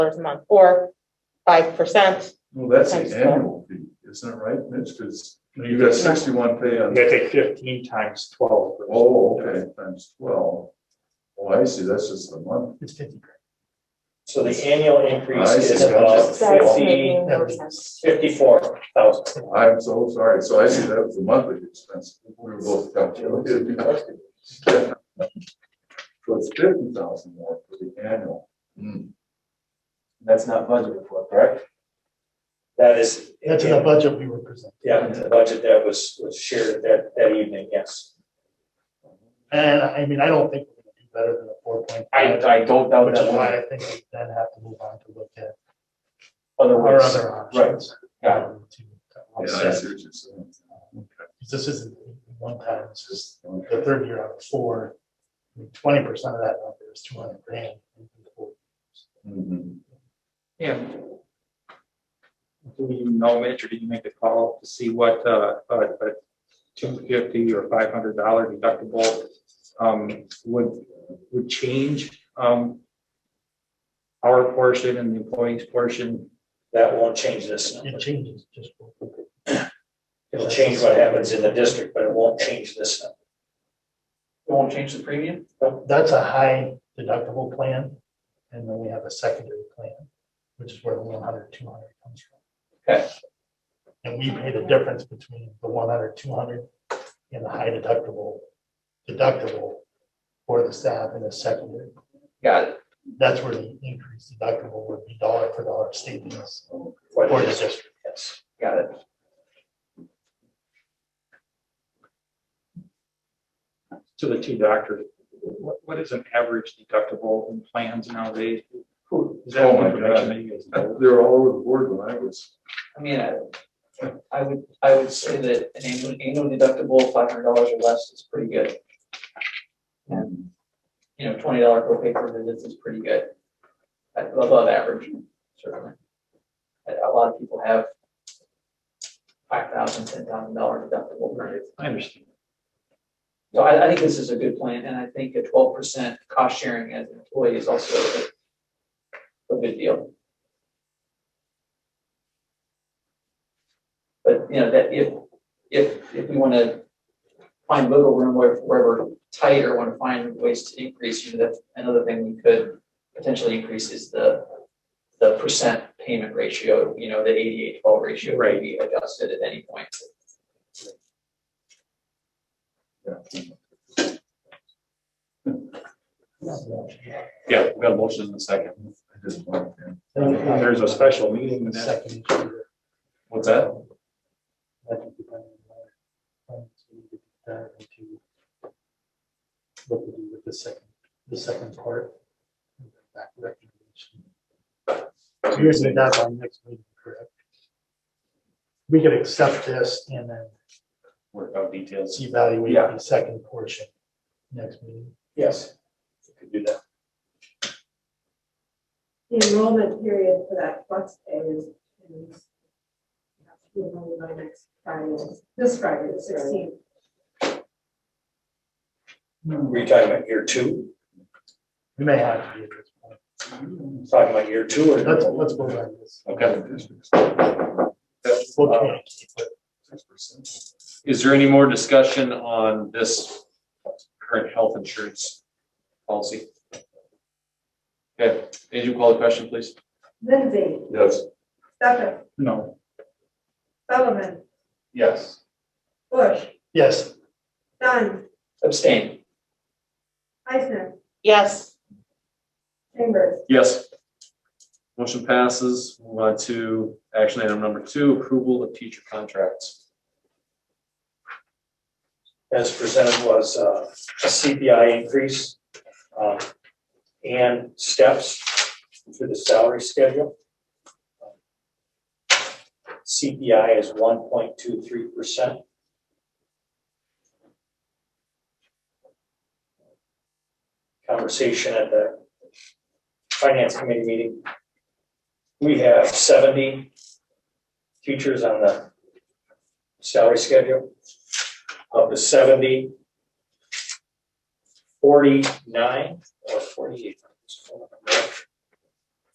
dollars a month, or five percent. Well, that's Times the twelve. annual fee, isn't it right, Mitch? Because No, you got sixty-one pay You on, gotta take fifteen times twelve. oh, okay, times twelve. Oh, I see, that's just the month. It's fifty grand. So the annual increase I is see. about That's fifty, making no sense. fifty-four thousand. I'm so sorry, so I see that was the monthly expense. We were both calculated. So it's fifty thousand more for the annual. Hmm, That's not budgeted for, correct? That is. That's in the budget we were presented. Yeah, the budget that was, was shared that, that evening, yes. And I mean, I don't think we're gonna do better than a four point I, five, I don't doubt which is that. why I think we then have to move on to look at our Otherwise, other options. Got um, to Yeah, I offset. see what you're saying. This isn't one time, it's just Okay. the third year out of four. Twenty percent of that number is two hundred grand. Mhm. Yeah. Do you know, Mitch, or did you make the call to see what, uh, uh, uh, two fifty or five hundred dollar deductible, um, would, would change, um, our portion and the employee's portion? that won't change this. It changes just. It'll change what happens in the district, but it won't change this. It won't change the premium? That's a high deductible plan. And then we have a secondary plan, which is where the 100, 200 comes from. Okay. And we pay the difference between the 100, 200, and the high deductible, deductible for the staff and the secondary. Got it. That's where the increased deductible would be dollar for dollar savings What for the it is, district. yes. Got it. To the two doctors, what, what is an average deductible in plans nowadays? Who- Is that Oh my information God. that you guys know? They're all over the board when I was, I mean, I, I would, I would say that an annual, annual deductible, five hundred dollars or less is pretty good. And, you know, twenty dollar copay for visits is pretty good. At above average, certainly. A a lot of people have five thousand, ten thousand dollar deductible periods. I understand. So I, I think this is a good plan, and I think a twelve percent cost sharing as an employee is also a good- a good deal. But, you know, that if, if, if we wanna find wiggle room where, where we're tight or wanna find ways to increase, you know, that's another thing we could potentially increase is the, the percent payment ratio, you know, the eighty-eight twelve ratio Right. could be adjusted at any point. yeah. Yeah, we got a motion in a second. I just wanted to- There's a special meeting The that, second year. what's that? that would depend on our plans, we could dive into What we do with the second, the second part. and then Back recommendation. So Here's the deadline next meeting, correct? We could accept this and then Work out details. evaluate Yeah. the second portion next meeting. Yes. we Could do that. The enrollment period for that flex pay is. is- we know by next Friday, this Friday, the sixteenth. Were you talking about year two? We may have to be at this point. Talking about year two or? Let's, let's move on this. Okay. uh, We'll communicate, but Is there any more discussion on this current health insurance policy? Okay, Andrew, call the question, please. Lindsay, Yes. Stefan, No. Sullivan, Yes. Bush, Yes. Dunn, Abstain. Eisner, Yes. Chambers. Yes. Motion passes. Move on to action item number two, approval of teacher contracts. as presented was uh, a CPI increase um, and steps to the salary schedule. CPI is one point two three percent. Conversation at the finance committee meeting. We have seventy teachers on the salary schedule of the seventy, forty-nine or forty-eight,